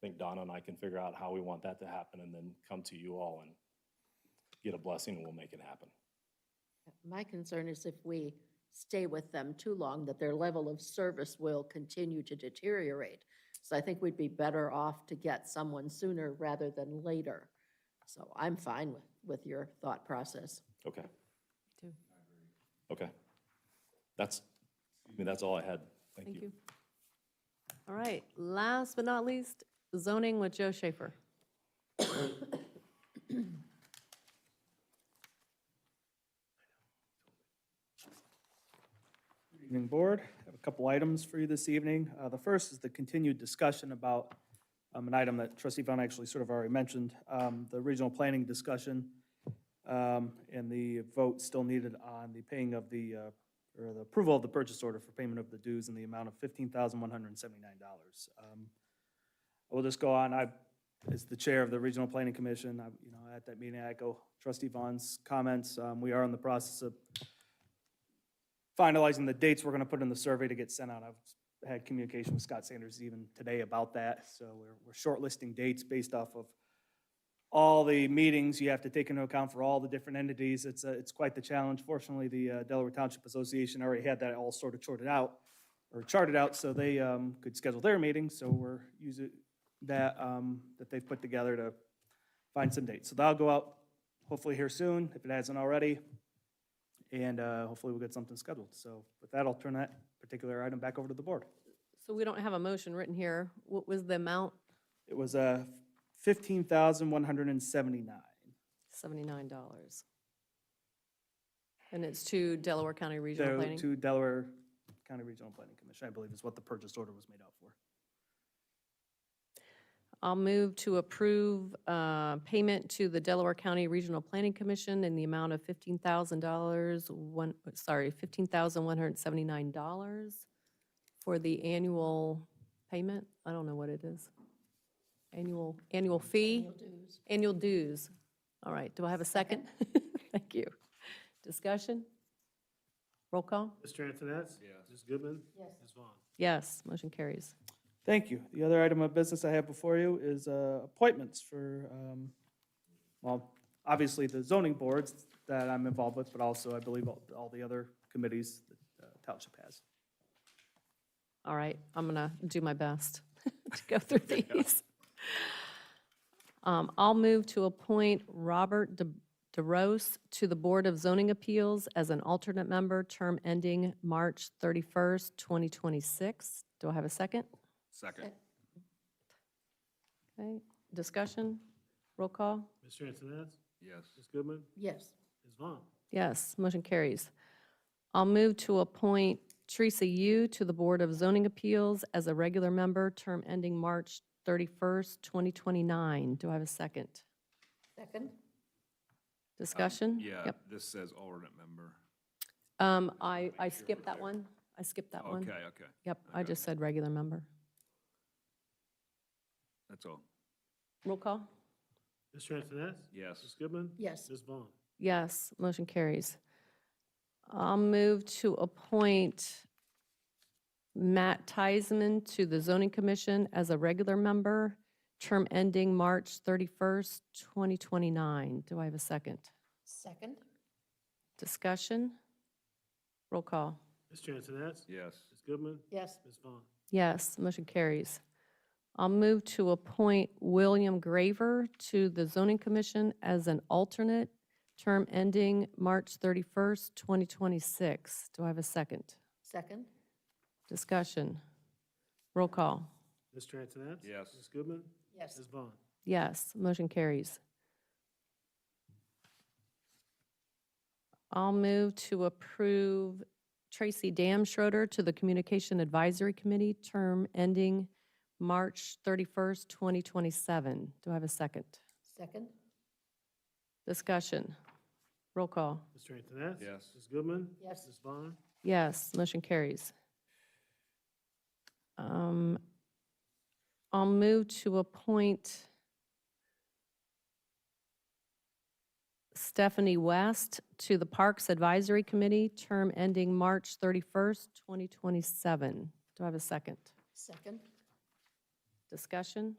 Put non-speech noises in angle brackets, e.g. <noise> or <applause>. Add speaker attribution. Speaker 1: think Donna and I can figure out how we want that to happen and then come to you all and get a blessing and we'll make it happen.
Speaker 2: My concern is if we stay with them too long, that their level of service will continue to deteriorate. So I think we'd be better off to get someone sooner rather than later. So I'm fine with, with your thought process.
Speaker 1: Okay,
Speaker 3: too.
Speaker 1: okay. That's, I mean, that's all I had. Thank
Speaker 3: Thank
Speaker 1: you.
Speaker 3: you. All right, last but not least, zoning with Joe Schaefer.
Speaker 4: Evening, Board. I have a couple items for you this evening. Uh, The first is the continued discussion about um, an item that trustee Vaughn actually sort of already mentioned, um, the regional planning discussion um, and the vote still needed on the paying of the, uh, or the approval of the purchase order for payment of the dues in the amount of $15,179. Um, I will just go on, I, as the chair of the Regional Planning Commission, I, you know, at that meeting, I echo trustee Vaughn's comments. Um, We are in the process of finalizing the dates we're gonna put in the survey to get sent out. I've had communication with Scott Sanders even today about that, so we're, we're shortlisting dates based off of all the meetings you have to take into account for all the different entities. It's, a- it's quite the challenge. Fortunately, the uh, Delaware Township Association already had that all sort of sorted out, or charted out, so they um, could schedule their meetings, so we're using that, um, that they've put together to find some dates. So that'll go out hopefully here soon, if it hasn't already and uh, hopefully we'll get something scheduled. So with that, I'll turn that particular item back over to the board.
Speaker 3: So we don't have a motion written here. What was the amount?
Speaker 4: It was uh, 15,179.
Speaker 3: $79. And it's to Delaware County Regional
Speaker 4: So
Speaker 3: Planning?
Speaker 4: To Delaware County Regional Planning Commission, I believe is what the purchase order was made out for.
Speaker 3: I'll move to approve uh, payment to the Delaware County Regional Planning Commission in the amount of $15,000, one, sorry, $15,179 for the annual payment. I don't know what it is. Annual, annual fee? Annual dues. All right, do I have a second? <laughs> Thank you. Discussion? Roll call?
Speaker 5: Mr. Antoness? Yes. Ms. Goodman? Yes. Ms. Vaughn?
Speaker 3: Yes, motion carries.
Speaker 4: Thank you. The other item of business I have before you is uh, appointments for, um, well, obviously the zoning boards that I'm involved with, but also I believe all all the other committees that uh, township has.
Speaker 3: All right, I'm going to do my best <laughs> to go through these. Um, I'll move to appoint Robert De- DeRose to the Board of Zoning Appeals as an alternate member, term ending March 31st, 2026. Do I have a second?
Speaker 6: Second.
Speaker 3: Okay, discussion? Roll call?
Speaker 5: Mr. Antoness?
Speaker 6: Yes.
Speaker 5: Ms. Goodman?
Speaker 2: Yes,
Speaker 5: Ms. Vaughn?
Speaker 3: Yes, motion carries. I'll move to appoint Teresa Yu to the Board of Zoning Appeals as a regular member, term ending March 31st, 2029. Do I have a second?
Speaker 2: second?
Speaker 3: Discussion?
Speaker 6: Yeah,
Speaker 3: Yep.
Speaker 6: this says alternate member.
Speaker 3: Um, I, I skipped that one. I skipped that one.
Speaker 6: Okay, okay,
Speaker 3: Yep, I
Speaker 6: okay.
Speaker 3: just said regular member.
Speaker 6: that's all.
Speaker 3: Roll call?
Speaker 5: Mr. Antoness? Ms.
Speaker 6: Yes,
Speaker 5: Goodman?
Speaker 2: Yes.
Speaker 5: Ms. Vaughn?
Speaker 3: Yes, motion carries. I'll move to appoint Matt Tysman to the Zoning Commission as a regular member, term ending March 31st, 2029. Do I have a second?
Speaker 2: Second?
Speaker 3: Discussion? Roll call.
Speaker 5: Mr. Antoness?
Speaker 6: yes,
Speaker 5: Ms. Goodman?
Speaker 2: Yes,
Speaker 5: Ms. Vaughn?
Speaker 3: Yes, motion carries. I'll move to appoint William Graver to the Zoning Commission as an alternate, term ending March 31st, 2026. Do I have a second?
Speaker 2: second?
Speaker 3: Discussion. Roll call.
Speaker 5: Mr. Antoness?
Speaker 6: Yes.
Speaker 5: Ms. Goodman?
Speaker 2: Yes.
Speaker 5: Ms. Vaughn?
Speaker 3: Yes, motion carries. I'll move to approve Tracy Dam Schroeder to the Communication Advisory Committee, term ending March 31st, 2027. Do I have a second?
Speaker 2: Second?
Speaker 3: Discussion. Roll call.
Speaker 5: Mr. Antoness?
Speaker 6: Yes.
Speaker 5: Ms. Goodman?
Speaker 2: Yes.
Speaker 5: Ms. Vaughn?
Speaker 3: Yes, motion carries. Um, I'll move to appoint Stephanie West to the Parks Advisory Committee, term ending March 31st, 2027. Do I have a second?
Speaker 2: Second?
Speaker 3: Discussion?